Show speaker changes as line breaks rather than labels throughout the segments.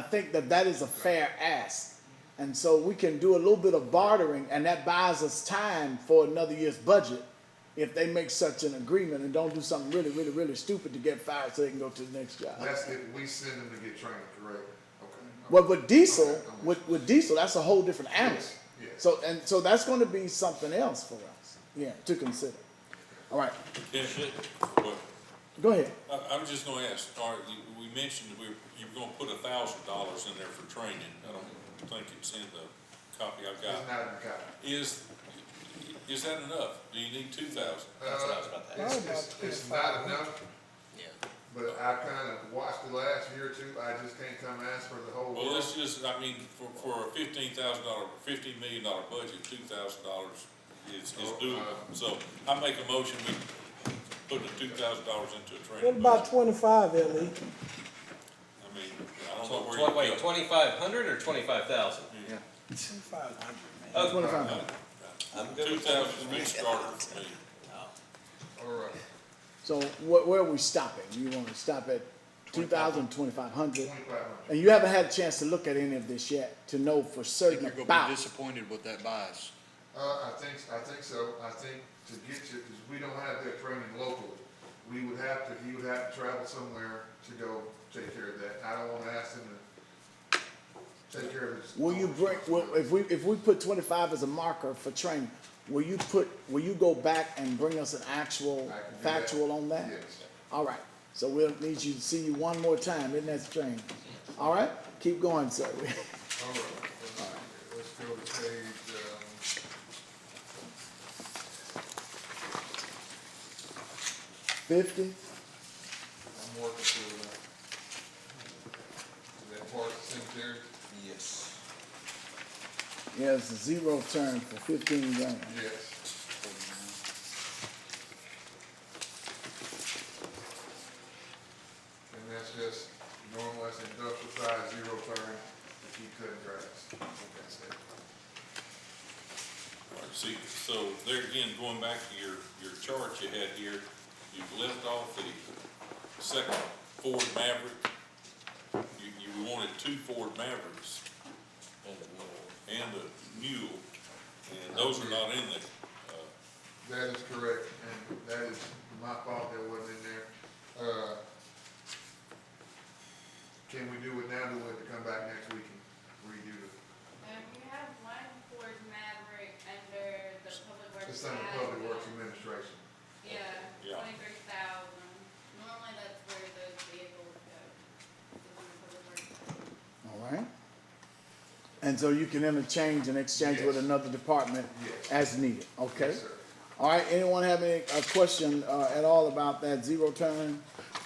think that that is a fair ask. And so we can do a little bit of bartering, and that buys us time for another year's budget if they make such an agreement and don't do something really, really, really stupid to get fired so they can go to the next job.
That's if we send them to get trained, correct? Okay.
But with diesel, with, with diesel, that's a whole different animal.
Yes, yes.
So, and so that's gonna be something else for us, yeah, to consider. All right,
Is it, well,
go ahead.
I, I'm just gonna ask, all right, you- we mentioned we, you were gonna put a thousand dollars in there for training. I don't think it's in the copy I've
It's
got.
not in the copy.
Is, is that enough? Do you need two thousand?
That's what I was about to
It's,
ask.
it's, it's not enough,
Yeah.
but I kind of watched the last year or two, I just can't come ask for the whole
Well,
world.
let's just, I mean, for, for a fifteen thousand dollar, fifteen million dollar budget, two thousand dollars is, is doable. So I make a motion, we put the two thousand dollars into a
What
training
about
budget.
twenty-five, Ellie?
I mean, I don't know where
Tw- tw-
you
Wait,
go.
twenty-five hundred or twenty-five thousand?
Twenty-five hundred, man.
Okay,
Twenty-five
Uh,
hundred.
I'm good
Two
with
thousand is a big starter for me.
All right,
So where, where are we stopping? You wanna stop at two thousand, twenty-five hundred?
twenty-five hundred.
And you haven't had a chance to look at any of this yet to know for
I think
certain
you're gonna be
about.
disappointed with that bias.
Uh, I think, I think so, I think to get you, because we don't have that training locally, we would have to, he would have to travel somewhere to go take care of that. I don't want to ask him to take care of his.
Will you
own
bring, well,
responsibility.
if we, if we put twenty-five as a marker for training, will you put, will you go back and bring us an actual,
I can do that.
factual on that?
Yes.
All right, so we'll need you to see you one more time in that training. All right, keep going, sir.
All right, let's go to page, um.
Fifty?
I'm working through that. Is that part of cemetery?
Yes.
Yeah, it's a zero turn for fifteen grand.
Yes. And that's just normal, that's industrial size, zero turn, to keep cutting grass. That's it.
All right, See, so there again, going back to your, your chart you had here, you've left off the second Ford Maverick. You, you wanted two Ford Mavericks and a mule, and those are not in there. Uh,
That is correct, and that is my fault that wasn't in there. Uh, Can we do it now, do we have to come back next week and redo it?
Um, we have one Ford Maverick under the public works.
It's under
ad,
Public Works
uh,
Administration.
Yeah,
Yeah.
twenty-three thousand. Normally that's where those vehicles go. is under public works.
All right. And so you can interchange and exchange with
Yes.
another department
Yes.
as needed, okay?
Yes, sir.
All right, anyone have any, a question, uh, at all about that zero turn?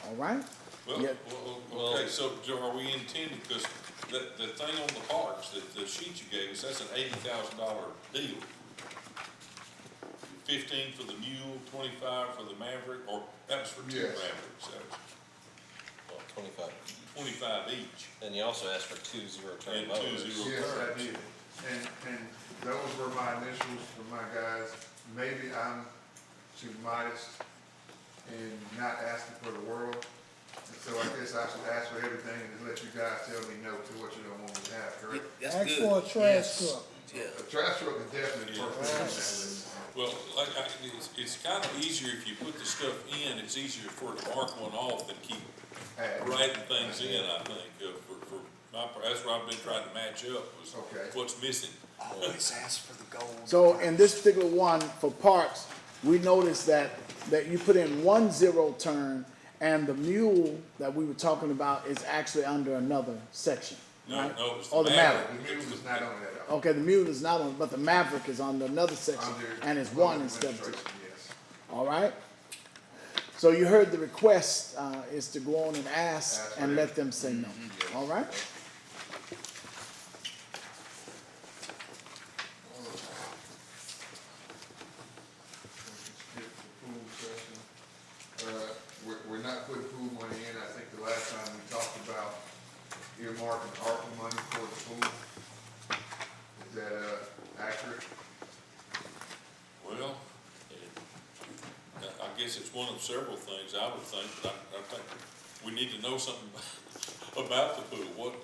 All right?
Well,
Yeah.
well, well, okay, so do- are we intending, because the, the thing on the parks, that the sheet you gave us, that's an eighty thousand dollar deal. Fifteen for the mule, twenty-five for the Maverick, or that was for two
Yes.
Mavericks, that was
Well, twenty-five.
twenty-five each.
And you also asked for two zero-turn
And two
motors.
zero.
Yes, I did. And, and those were my initials for my guys. Maybe I'm too modest and not asking for the world. And so I guess I should ask for everything and just let you guys tell me no to what you don't want me to have, correct?
Ask for a trash truck.
A trash truck is definitely perfect. on that list.
Well, like, I, it's, it's kind of easier if you put the stuff in, it's easier for it to mark one off than keep
Add.
writing things in, I think, uh, for, for my, part. that's what I've been trying to match up, was
Okay.
what's missing.
Always ask for the gold.
So in this particular one for parks, we noticed that, that you put in one zero turn and the mule that we were talking about is actually under another section,
No,
right? Oh,
no, it's
Or
the
the
Maverick.
Maverick.
The mule is not on that.
Okay, the mule is not on, but the Maverick is under another section
Under
and it's
Public
one instead of two.
Administration, Yes.
All right? So you heard the request, uh, is to go on and ask
Ask
and
for
let them say no, all right?
Skip the pool session. Uh, we're, we're not putting pool money in, I think the last time we talked about earmarking ARPA money for the pool. Is that, uh, accurate?
Well, it- I I guess it's one of several things I would think, but I, I think we need to know something about the pool, what,